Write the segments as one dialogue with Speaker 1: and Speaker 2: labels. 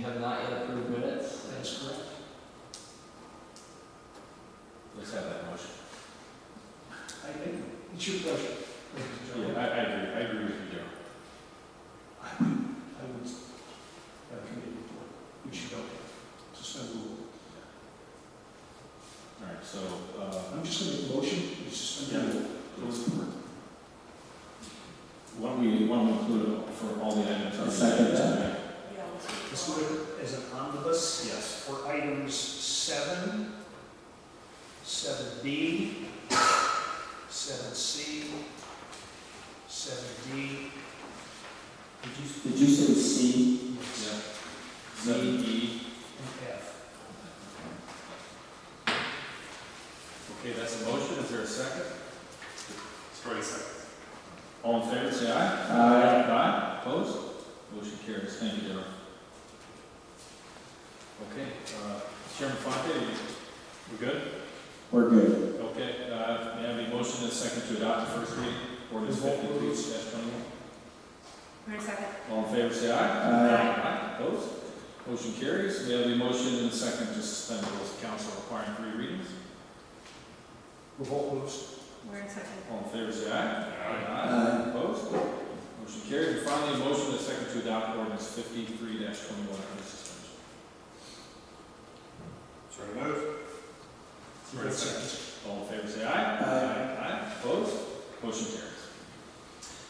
Speaker 1: have not yet approved minutes.
Speaker 2: That's correct.
Speaker 3: Let's have that motion.
Speaker 2: I think, it's your pleasure. ladies and
Speaker 3: Yeah,
Speaker 2: gentlemen.
Speaker 3: I, I agree, I agree with you, Darrell.
Speaker 2: I would, I would, uh, committee report, we should go, suspend the rule.
Speaker 3: All right, so, uh,
Speaker 2: I'm just gonna make a motion, we suspend the rule. Close the warrant.
Speaker 3: why don't we, why don't we include it for all the items? on the
Speaker 4: Second
Speaker 3: agenda
Speaker 4: that.
Speaker 3: tonight?
Speaker 2: Let's do it as an omnibus
Speaker 3: Yes.
Speaker 2: for items seven, seven B, seven C, seven D.
Speaker 4: Did you say C?
Speaker 2: Yes.
Speaker 3: Yeah. Seven E,
Speaker 2: And F.
Speaker 3: okay, that's a motion, is there a second?
Speaker 5: Story second.
Speaker 3: All in favor, say aye.
Speaker 4: Aye.
Speaker 3: Aye, opposed? Motion carries, thank you, Darrell. Okay, uh, Chairman Fonte, you- we're good?
Speaker 4: We're good.
Speaker 3: Okay, uh, may I have a motion and a second to adopt the first reading, ordinance
Speaker 2: Revolt
Speaker 3: fifty-three
Speaker 2: rules.
Speaker 3: dash twenty-one?
Speaker 5: Wait a second.
Speaker 3: All in favor, say aye.
Speaker 4: Aye.
Speaker 3: Aye. Opposed? Motion carries. We have a motion and a second to suspend the rules of council requiring three readings.
Speaker 2: Revolt moves.
Speaker 5: Wait a second.
Speaker 3: All in favor, say aye.
Speaker 4: Aye.
Speaker 3: Opposed? Motion carries. And finally, a motion and a second to adopt ordinance fifty-three twenty-one under suspension.
Speaker 5: Story move.
Speaker 3: Wait a second. All in favor, say aye.
Speaker 4: Aye.
Speaker 3: Aye. Opposed? Motion carries.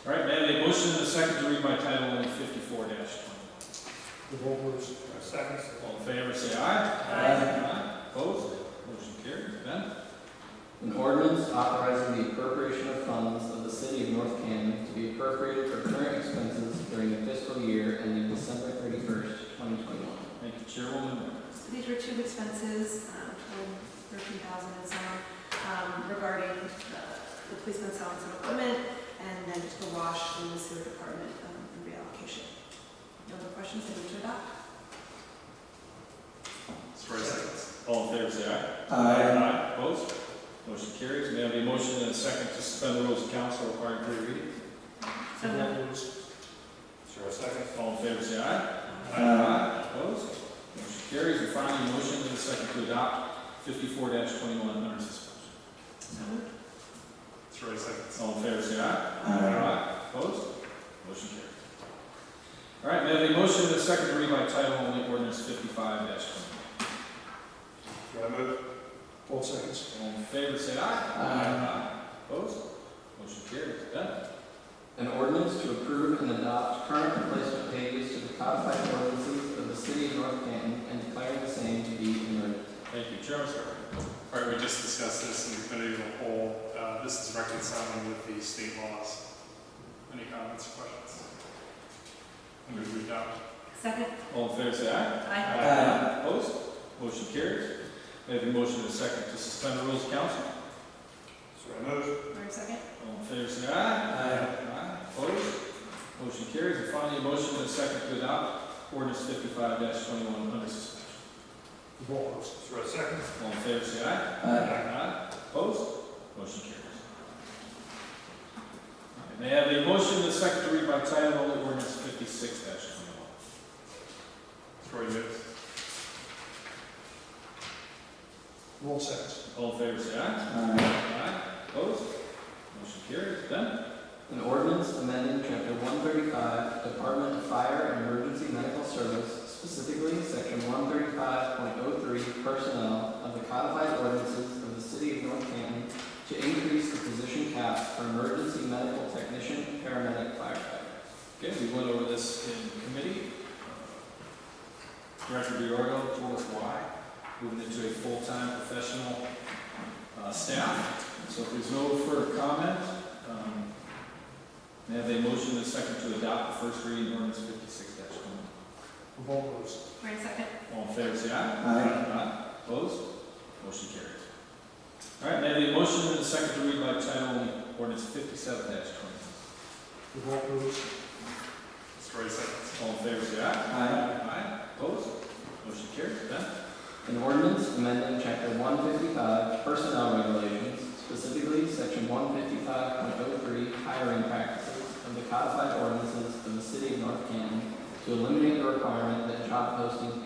Speaker 3: All right, may I have a motion and a second to read by title only fifty-four twenty-one?
Speaker 2: Revolt moves.
Speaker 5: Second.
Speaker 3: All in favor, say aye.
Speaker 4: Aye.
Speaker 3: Aye. Opposed? Motion carries. Ben?
Speaker 1: An ordinance authorizing the appropriation of funds of the city of North Canton to be appropriated for current expenses during the fiscal year ending December thirty-first, twenty twenty-one.
Speaker 3: Thank you, Chairwoman.
Speaker 6: So these were two expenses, um, totaling thirteen thousand and some, um, regarding uh, the policeman selling some equipment, and then just the wash in the sewer department, um, and reallocation. No other questions, they move to adopt.
Speaker 5: Story second.
Speaker 3: All in favor, say aye.
Speaker 4: Aye.
Speaker 3: Opposed? Motion carries. May I have a motion and a second to suspend the rules of council requiring three readings?
Speaker 6: So moved.
Speaker 2: Revolt moves.
Speaker 5: Story second.
Speaker 3: All in favor, say aye. Opposed? Motion carries. And finally, a motion and a second to adopt fifty-four twenty-one under suspension.
Speaker 6: So moved.
Speaker 5: Story second.
Speaker 3: All in favor, say aye.
Speaker 5: Uh,
Speaker 4: Aye.
Speaker 3: Opposed? Motion carries. All right, may I have a motion and a second to read by title only ordinance fifty-five twenty-one?
Speaker 5: Story move.
Speaker 2: Both seconds.
Speaker 3: All in favor, say aye. Opposed? Motion carries. Done.
Speaker 1: An ordinance to approve and adopt current replacement pages to the codified ordinances of the city of North Canton and declaring the same to be in emergency.
Speaker 3: Thank you, Chairman Sarver.
Speaker 5: All right, we just discussed this in the committee of the whole. Uh, This is reconciling with the state laws. Any comments, questions? I move we adopt.
Speaker 6: Second.
Speaker 3: All in favor, say aye.
Speaker 5: Uh,
Speaker 4: Aye.
Speaker 6: Aye.
Speaker 3: Opposed? Motion carries. May I have a motion and a second to suspend the rules of council?
Speaker 5: Story move.
Speaker 6: Wait a second.
Speaker 3: All in favor, say aye. Aye. Opposed? Motion carries. And finally, a motion and a second to adopt ordinance fifty-five twenty-one under suspension.
Speaker 2: Revolt moves.
Speaker 5: Story second.
Speaker 3: All in favor, say aye.
Speaker 4: Aye.
Speaker 3: Aye. Opposed? Motion carries. All right, May I have a motion and a second to read by title only ordinance fifty-six twenty-one?
Speaker 5: Story move.
Speaker 2: Roll seconds.
Speaker 3: All in favor, say aye.
Speaker 4: Aye.
Speaker 3: Aye. Opposed? Motion carries. Done.
Speaker 1: An ordinance amending chapter one thirty-five, Department of Fire and Emergency Medical Service, specifically section one thirty-five point oh three personnel of the codified ordinances of the city of North Canton to increase the position cap for emergency medical technician, paramedic, firefighter.
Speaker 3: Okay, we went over this in committee. Director Biorgo told us why, moving into a full-time professional uh, staff. So if there's no further comment, um, may I have a motion and a second to adopt the first reading ordinance fifty-six one?
Speaker 2: Revolt moves.
Speaker 6: Wait a second.
Speaker 3: All in favor, say aye.
Speaker 4: Aye.
Speaker 3: Aye. Opposed? Motion carries. All right, may I have a motion and a second to read by title only ordinance fifty-seven twenty?
Speaker 2: Revolt moves.
Speaker 5: Story second.
Speaker 3: All in favor, say aye.
Speaker 4: Aye.
Speaker 3: Aye. Opposed? Motion carries. Ben?
Speaker 1: An ordinance amending chapter one fifty-five personnel regulations, specifically section one fifty-five point oh three hiring practices of the codified ordinances of the city of North Canton to eliminate the requirement that job postings